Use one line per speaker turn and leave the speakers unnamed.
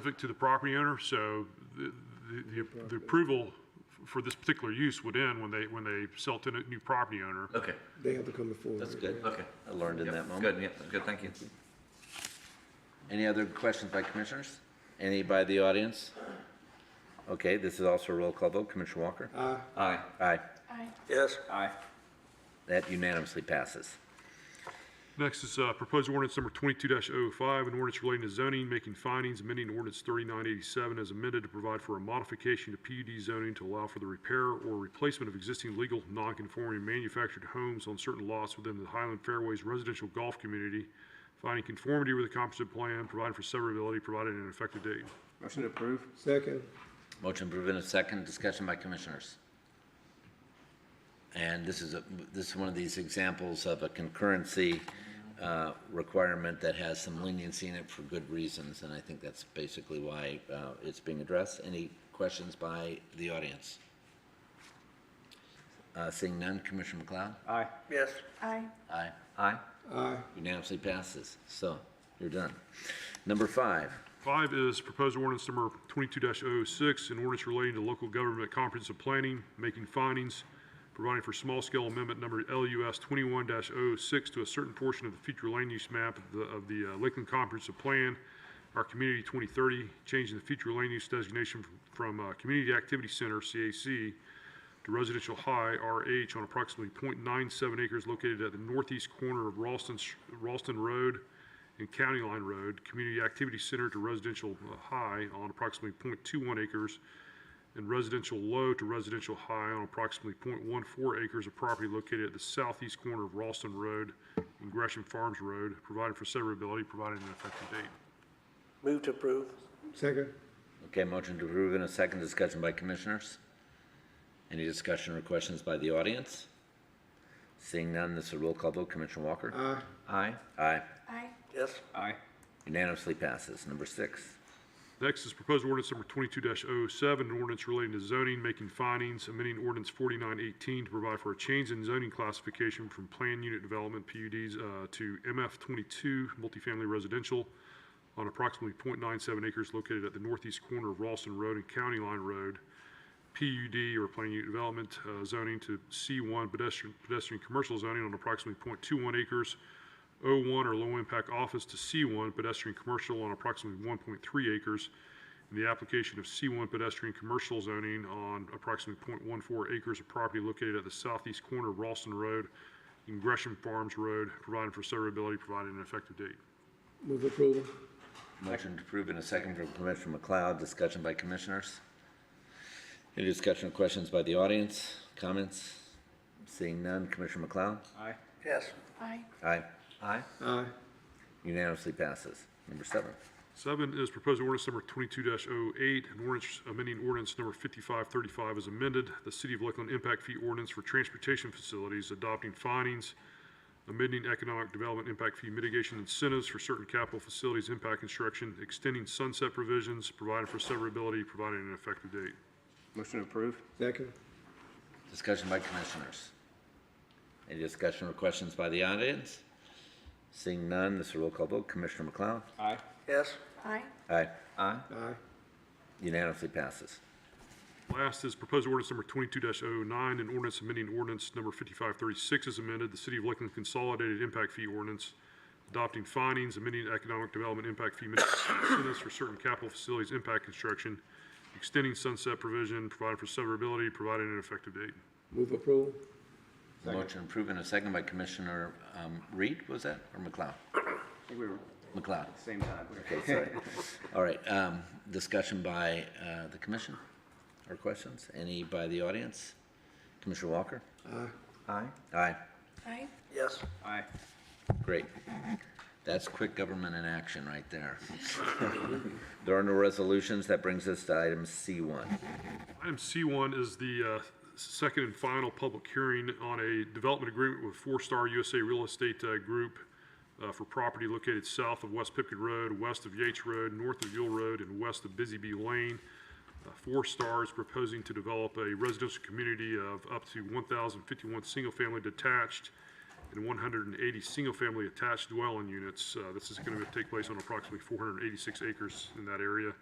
specific to the property owner, so the, the- the- the approval f- for this particular use would end when they, when they sell to a new property owner.
Okay,
They have to come before.
that's good.
Okay, I learned in
Yep,
that moment.
Good, yeah, good, thank you.
Any other questions by commissioners? Any by the audience? Okay, this is also a roll call vote. Commissioner Walker?
Aye.
Aye.
Yes.
That unanimously passes.
Next is uh, proposed ordinance number 22-05, an ordinance relating to zoning, making findings, amending ordinance 3987 as amended to provide for a modification to PUD zoning to allow for the repair or replacement of existing legal non-conforming manufactured homes on certain lots within the Highland Fairways residential golf community, finding conformity with the comprehensive plan, providing for severability, providing an effective date.
Motion to approve?
Second,
Motion proven and second, discussion by commissioners. And this is, a- this is one of these examples of a concurrency uh, requirement that has some leniency in it for good reasons, and I think that's basically why uh, it's being addressed. Any questions by the audience? Uh, Seeing none, Commissioner McLeod?
Aye.
Yes.
Aye.
Aye.
Aye.
aye,
Unanimously passes, so you're done. Number five,
Five is proposed ordinance number 22-06, an ordinance relating to local government comprehensive planning, making findings, providing for small-scale amendment number LUS 21-06 to a certain portion of the future land use map of the- of the uh, Lakeland Comprehensive Plan, our Community 2030, changing the future land use designation from uh, Community Activity Center, CAC, to residential high RH on approximately .97 acres located at the northeast corner of Ralston, Ralston Road and County Line Road, Community Activity Center to residential uh, high on approximately .21 acres, and residential low to residential high on approximately .14 acres of property located at the southeast corner of Ralston Road and Gresham Farms Road, providing for severability, providing an effective date.
Move to approve.
second,
okay, motion to approve in a second, discussion by commissioners. Any discussion or questions by the audience? Seeing none, this is a roll call vote, Commissioner Walker?
aye,
Aye.
Aye,
Aye.
Yes.
Aye.
unanimously passes. Number six,
Next is proposed ordinance number twenty-two 7 an ordinance relating to zoning, making findings, amending ordinance forty-nine eighteen to provide for a change in zoning classification from planned unit development PUDs uh, to MF twenty-two multifamily residential on approximately 0.97 acres located at the northeast corner of Ralston Road and County Line Road. PUD or planned unit development uh, zoning to C1 pedestrian, pedestrian commercial zoning on approximately 0.21 acres, O1 or low-impact office to C1 pedestrian commercial on approximately 1.3 acres, and the application of C1 pedestrian commercial zoning on approximately 0.14 acres of property located at the southeast corner of Ralston Road and Gresham Farms Road, providing for severability, providing an effective date.
move approval,
motion to approve in a second from Commissioner McLeod, discussion by commissioners. Any discussion or questions by the audience, comments? Seeing none, Commissioner McLeod?
Aye.
Yes.
Aye.
Aye,
Aye.
aye,
unanimously passes. Number seven.
Seven is proposed ordinance number twenty-two 8 an ordinance amending ordinance number fifty-five thirty-five as amended, the City of Lakeland Impact Fee Ordinance for Transportation Facilities, adopting findings, amending economic development impact fee mitigation incentives for certain capital facilities impact construction, extending sunset provisions, providing for severability, providing an effective date.
Motion to approve?
second,
Discussion by commissioners. Any discussion or questions by the audience? Seeing none, this is a roll call vote. Commissioner McLeod?
Aye.
Yes.
Aye.
Aye.
Aye.
aye,
Unanimously passes.
Last is proposed ordinance number twenty-two 9 an ordinance amending ordinance number fifty-five thirty-six is amended, the City of Lakeland Consolidated Impact Fee Ordinance, adopting findings, amending economic development impact fee mitigation incentives for certain capital facilities impact construction, extending sunset provision, providing for severability, providing an effective date.
move approval,
Motion approved in a second by Commissioner um, Reed, was that, or McLeod?
I think we were
McLeod.
same time.
Okay, sorry. All right, um, discussion by uh, the commission or questions? Any by the audience? Commissioner Walker?
aye,
Aye.
Aye.
Aye.
Yes.
Aye.
Great. That's quick government in action right there. There are no resolutions. That brings us to item C1.
Item C1 is the uh, second and final public hearing on a development agreement with Four Star USA Real Estate uh, Group uh, for property located south of West Pipkin Road, west of Yates Road, north of Yule Road, and west of Busy Bee Lane. Uh, Four Star is proposing to develop a residential community of up to 1,051 single-family detached and 180 single-family attached dwelling units. Uh, This is going to take place on approximately 486 acres in that area.